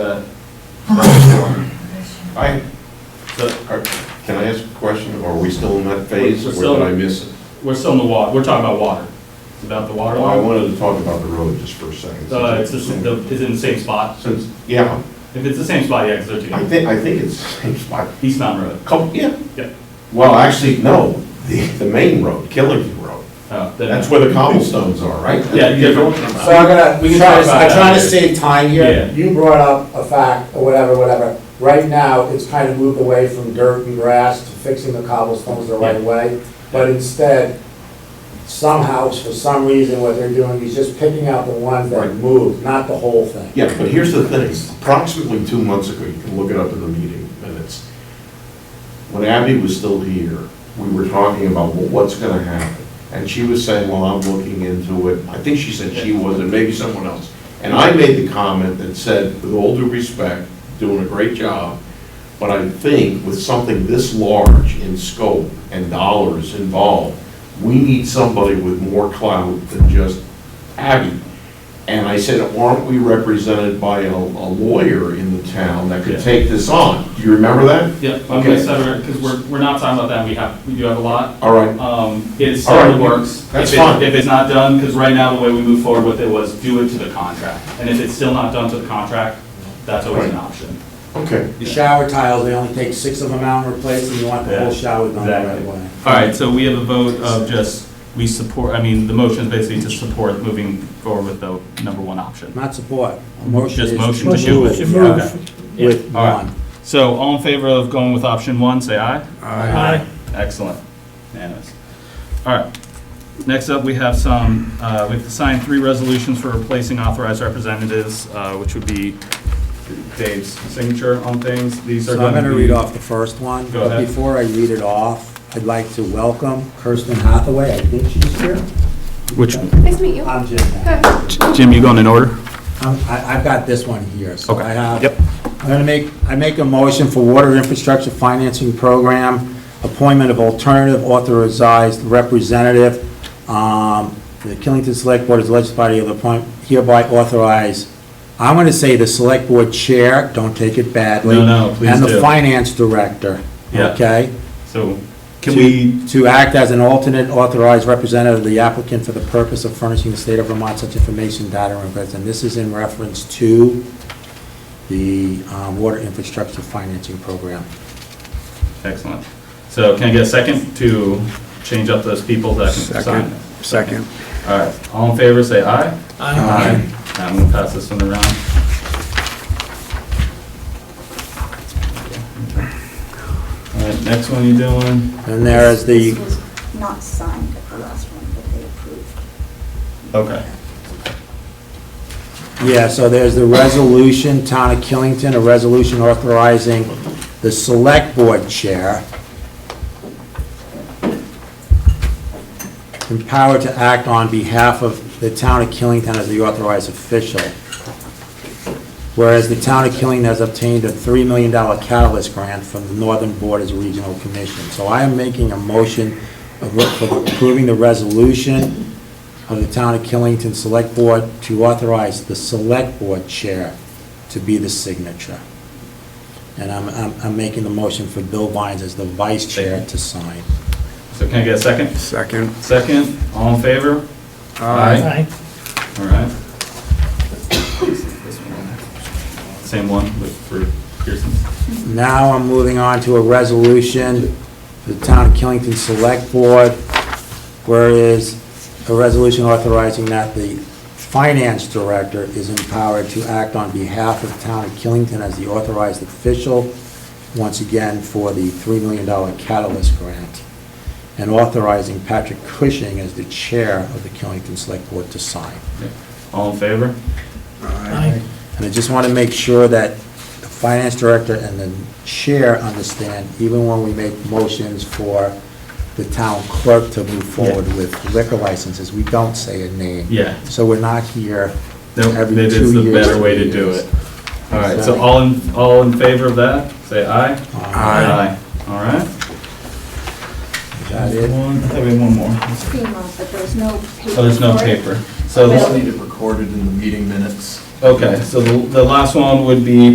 I, are- can I ask a question? Are we still in that phase We're or still- did I miss it? We're still in the water, we're talking about water, It's about the water Well, I line. wanted to talk about the road just for a second. Uh, it's, just- the- it's in the same spot, Since, yeah, if it's the same spot, yeah, because they're I together, think, I think it's the same spot. East Mountain Road. Couple, yeah. Yeah. Well, actually, no, the, the main road, Killington Road. Oh, then- That's where the cobblestones are, right? Yeah, you get- So I'm gonna, We can Charles, talk about I'm trying to that. save time Yeah. here. You brought up a fact, or whatever, whatever. Right now, it's kind of moved away from dirt and grass to fixing the cobblestones the right way. But instead, somehow, for some reason, what they're doing is just picking out the ones that Right. moved, not the whole thing. Yeah, but here's the thing, approximately two months ago, you can look it up in the meeting minutes. When Abby was still here, we were talking about, well, what's gonna happen? And she was saying, well, I'm looking into it, I think she said she was, and maybe someone else. And I made the comment that said, with all due respect, doing a great job, but I think with something this large in scope and dollars involved, we need somebody with more clout than just Abby. And I said, aren't we represented by a, a lawyer in the town that Yeah. could take this on? Do you remember that? Yeah, I'm gonna Okay. sever it, because we're, we're not talking about that, we have, we do have a lot. All right, Um, it's All right, still in the works. that's If it- fine. If it's not done, because right now, the way we move forward with it was do it to the contract. And if it's still not done to the contract, that's always an Right. option. okay. The shower tiles, they only take six of them out and replace them. You want the whole Yeah, shower done the right exactly. way. All right, so we have a vote of just, we support, I mean, the motion is basically to support moving forward with the number one option. Not support. A motion Just is. motion to do it. Move Yeah, okay. Yeah. With All right. one. So all in favor of going with option one, say aye. Aye. Excellent. Unanimous. All right. Next up, we have some, uh, we have to sign three resolutions for replacing authorized representatives, uh, which would be Dave's signature on things. These are So I'm going to going be. to read off the first one. Go But ahead. before I read it off, I'd like to welcome Kirsten Hathaway. I think she's here. Which, Nice to meet you. I'm Jim. now. Good. Jim, you going in order? I'm- I- I've got this one here. So Okay. I have. Yep. I'm going to make, I make a motion for Water Infrastructure Financing Program, appointment of alternative authorized representative. Um, The Killington Select Board is the legislative body of the appoint, hereby authorize, I'm going to say the Select Board Chair, don't take it badly. No, no, please And the do. Finance Director. Yeah. Okay? So can to- we, To act as an alternate authorized representative of the applicant for the purpose of furnishing the state of Vermont such information, data, and records. And this is in reference to the um, Water Infrastructure Financing Program. Excellent. So can I get a second to change up those people that can sign? Second, second. All right, all in favor, say aye. Um, Aye. I'm gonna pass this one around. All right, next one you doing? And there is the, This was not signed at the last one, but they approved. Okay, yeah, so there's the resolution, Town of Killington, a resolution authorizing the Select Board Chair empowered to act on behalf of the Town of Killington as the authorized official. Whereas the town of Killing has obtained a $3 million catalyst grant from the Northern Borders Regional Commission. So I am making a motion of re- for approving the resolution of the town of Killington Select Board to authorize the Select Board Chair to be the signature. And I'm, I'm, I'm making the motion for Bill Vines as the Vice Chair to sign. so can I get a second? Second. Second, all in favor? All right. Same one with, for Pearson? Now I'm moving on to a resolution, for the Town of Killington Select Board, whereas a resolution authorizing that the finance director is empowered to act on behalf of the Town of Killington as the authorized official, once again, for the $3 million catalyst grant, and authorizing Patrick Cushing as the chair of the Killington Select Board to sign. All in favor? And I just want to make sure that the finance director and the chair understand, even when we make motions for the town clerk to move forward with liquor licenses, we don't say a name. Yeah. So we're not here Nope, every That is two the years, better way to three do years. it. All right, so all in, all in favor of that, say aye. Aye. All right. Is that it? One, I think we have one more. Oh, FEMA, but there was no paper. there's no for it. paper. So, Well- the- need it recorded in the meeting minutes. okay, so the, the last one would be